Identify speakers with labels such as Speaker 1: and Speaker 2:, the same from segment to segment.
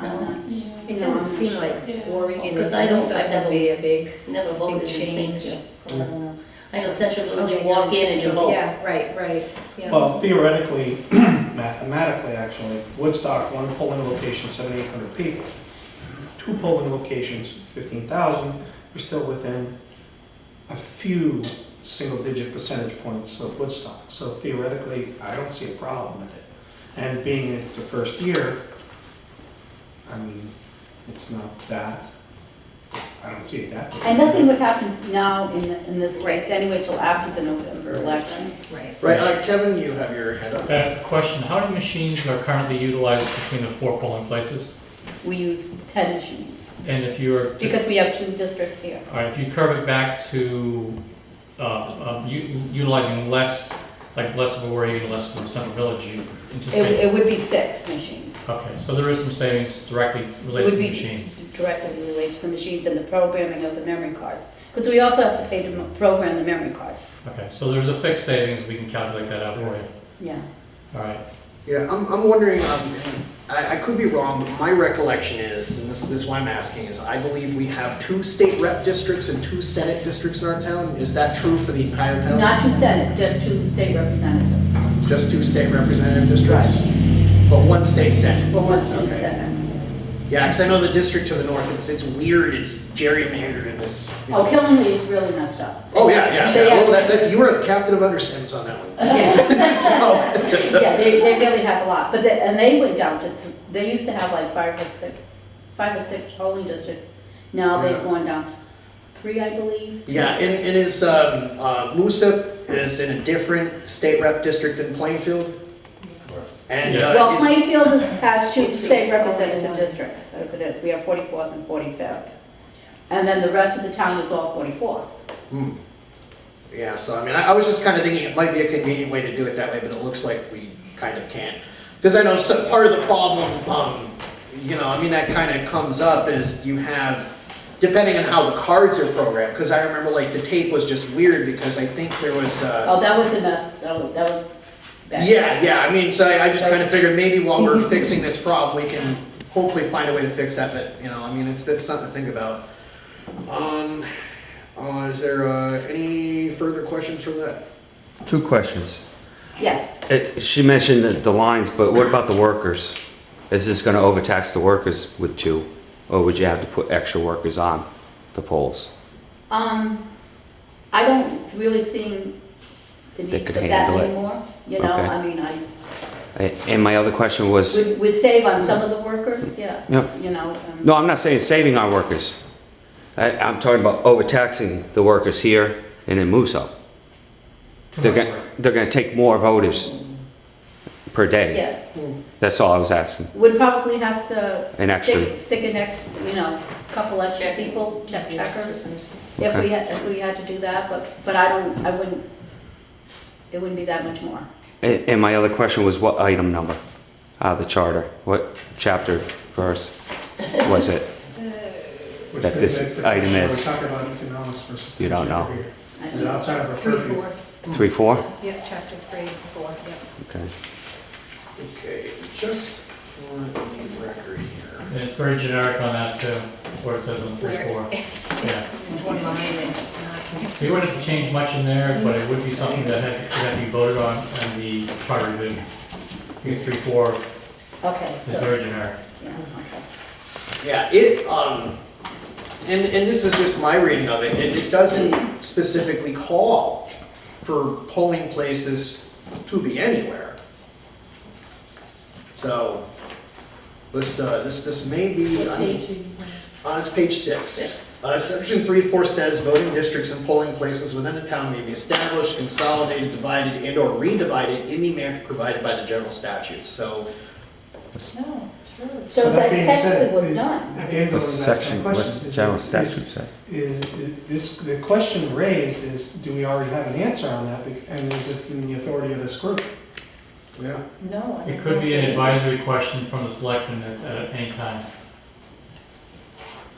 Speaker 1: um,
Speaker 2: doesn't seem like Oregon
Speaker 3: Because I don't-
Speaker 2: and
Speaker 3: I've
Speaker 2: stuff
Speaker 3: never-
Speaker 2: would be a big.
Speaker 3: Never voted
Speaker 2: change.
Speaker 3: change. Oh, I don't know. I know Central Village, you walk in and you vote.
Speaker 2: Yeah, right, right, yeah.
Speaker 4: Well, theoretically, mathematically, actually, Woodstock, one polling location, 7,800 people. Two polling locations, 15,000, we're still within a few single-digit percentage points of Woodstock. So theoretically, I don't see a problem with it. And being it's the first year, I mean, it's not that, I don't see it that. big.
Speaker 1: And nothing would happen now in, in this race anyway till after the November election.
Speaker 2: Right.
Speaker 5: Right, uh, Kevin, you have your hand up.
Speaker 6: Uh, Question, how many machines are currently utilized between the four polling places?
Speaker 1: We use ten machines
Speaker 6: And if you were, to-
Speaker 1: because we have two districts here.
Speaker 6: all right, if you curve it back to uh, uh, u- utilizing less, like less of Oregon, less of Central Village, you
Speaker 1: It,
Speaker 6: anticipate?
Speaker 1: it would be six machines.
Speaker 6: Okay, so there is some savings directly
Speaker 1: It would
Speaker 6: related to
Speaker 1: be
Speaker 6: the machines.
Speaker 1: Directly related to the machines and the programming of the memory cards. Because we also have to pay to m- program the memory cards.
Speaker 6: Okay, so there's a fixed savings, we can calculate that out for you.
Speaker 1: Yeah.
Speaker 6: All right,
Speaker 5: Yeah, I'm, I'm wondering, um, I, I could be wrong, but my recollection is, and this, this is why I'm asking, is I believe we have two state rep districts and two senate districts in our town. Is that true for the entire town?
Speaker 1: Not two senate, just two state representatives.
Speaker 5: Just two state representative districts? But one state senate?
Speaker 1: But once we
Speaker 5: Okay.
Speaker 1: senate.
Speaker 5: Yeah, because I know the district to the north, it's, it's weird, it's gerrymandered in this. you know.
Speaker 1: Oh, Killenly is really messed up.
Speaker 5: Oh, yeah, yeah,
Speaker 1: They
Speaker 5: yeah.
Speaker 1: have-
Speaker 5: Well, that, that's, you were the captain of understandings on that one. So-
Speaker 1: Yeah, they, they really have a lot, but they, and they went down to, th- they used to have like five or six, five or six polling districts. Now they've
Speaker 5: Yeah.
Speaker 1: gone down to three, I believe.
Speaker 5: Yeah, and, and is, um, uh, Moosip is in a different state rep district than Plainfield? And,
Speaker 6: Yeah.
Speaker 1: Well,
Speaker 5: uh, is,
Speaker 1: Plainfield is- has two state
Speaker 2: Only
Speaker 1: representative
Speaker 2: one.
Speaker 1: districts, as it is, we have forty-fourth and forty-fifth. And then the rest of the town is all forty-fourth.
Speaker 5: Hmm. yeah, so I mean, I, I was just kinda thinking it might be a convenient way to do it that way, but it looks like we kind of can't. Cause I know some, part of the problem, um, you know, I mean, that kinda comes up is you have, depending on how the cards are programmed, cause I remember like the tape was just weird because I think there was, uh,
Speaker 1: Oh, that was a mess, that was, that was bad.
Speaker 5: Yeah, yeah, I mean, so I I just kind of
Speaker 1: Right.
Speaker 5: figured maybe while we're fixing this problem, we can hopefully find a way to fix that, but, you know, I mean, it's, it's something to think about. Um, uh, is there, uh, any further questions from that?
Speaker 7: Two questions.
Speaker 1: Yes,
Speaker 7: It- She mentioned the- the lines, but what about the workers? Is this going to overtax the workers with two? Or would you have to put extra workers on the polls?
Speaker 1: um, I don't really see the
Speaker 7: They
Speaker 1: need for
Speaker 7: could
Speaker 1: that
Speaker 7: handle it.
Speaker 1: anymore, you know,
Speaker 7: Okay.
Speaker 1: I mean, I,
Speaker 7: A- And my other question was,
Speaker 1: Would, would save on some of the workers, yeah.
Speaker 7: Yeah.
Speaker 1: You know, um,
Speaker 7: no, I'm not saying saving our workers. I- I'm talking about overtaxing the workers here and in Musso.
Speaker 6: too
Speaker 7: They're
Speaker 6: much
Speaker 7: going,
Speaker 6: work.
Speaker 7: they're going to take more voters per day.
Speaker 1: yeah,
Speaker 5: Hmm,
Speaker 7: That's all I was asking.
Speaker 1: would probably have to
Speaker 7: An extra.
Speaker 1: stick, stick an ex, you know, couple extra people, check checkers, if
Speaker 7: Okay.
Speaker 1: we had, if we had to do that, but, but I don't, I wouldn't, it wouldn't be that much more.
Speaker 7: A- And my other question was what item number out of the charter? What chapter verse was it?
Speaker 4: Which
Speaker 7: that this
Speaker 4: makes the question
Speaker 7: item
Speaker 4: we're
Speaker 7: is-
Speaker 4: talking about economics versus
Speaker 7: You don't know.
Speaker 4: theory.
Speaker 1: I
Speaker 4: Is
Speaker 1: don't
Speaker 4: it
Speaker 1: know.
Speaker 4: outside of our
Speaker 2: Three,
Speaker 4: purview?
Speaker 2: four,
Speaker 7: Three, four?
Speaker 2: yep, chapter three, four, yep.
Speaker 7: Okay.
Speaker 5: Okay, just for the record here.
Speaker 6: And it's very generic on that too, where it says on three, four. Yeah.
Speaker 2: It's one line, it's not.
Speaker 6: So you wouldn't have to change much in there, but it would be something that had, that had to be voted on in the charter revision. Because three, four
Speaker 1: Okay,
Speaker 6: is
Speaker 1: so,
Speaker 6: very generic.
Speaker 1: yeah, okay.
Speaker 5: Yeah, it, um, and, and this is just my reading of it, it, it doesn't specifically call for polling places to be anywhere. So, this, uh, this, this may be, I mean, uh, it's page
Speaker 1: Six.
Speaker 5: six. Uh, section three, four says voting districts and polling places within a town may be established, consolidated, divided, and or redivided in the manner provided by the general statutes, so.
Speaker 2: No, sure.
Speaker 1: So
Speaker 4: So
Speaker 1: that
Speaker 4: that being
Speaker 1: technically
Speaker 4: said,
Speaker 1: was
Speaker 4: it-
Speaker 1: done,
Speaker 4: Again, going back
Speaker 7: What's
Speaker 4: to
Speaker 7: section,
Speaker 4: that
Speaker 7: what's
Speaker 4: question.
Speaker 7: the
Speaker 4: is-
Speaker 7: general
Speaker 4: is-
Speaker 7: statute say?
Speaker 4: Is, this, the question raised is, do we already have an answer on that? Bec- And is it in the authority of this group?
Speaker 5: Yeah.
Speaker 2: No. I
Speaker 6: It
Speaker 2: don't
Speaker 6: could be
Speaker 2: know.
Speaker 6: an advisory question from the selectmen at, at any time.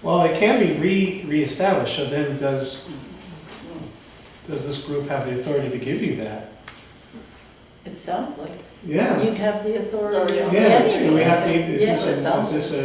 Speaker 4: Well, it can be re, reestablished, so then does, does this group have the authority to give you that?
Speaker 3: It sounds like.
Speaker 4: Yeah,
Speaker 3: have the authority.
Speaker 4: yeah, do we have to, is this, a- is this a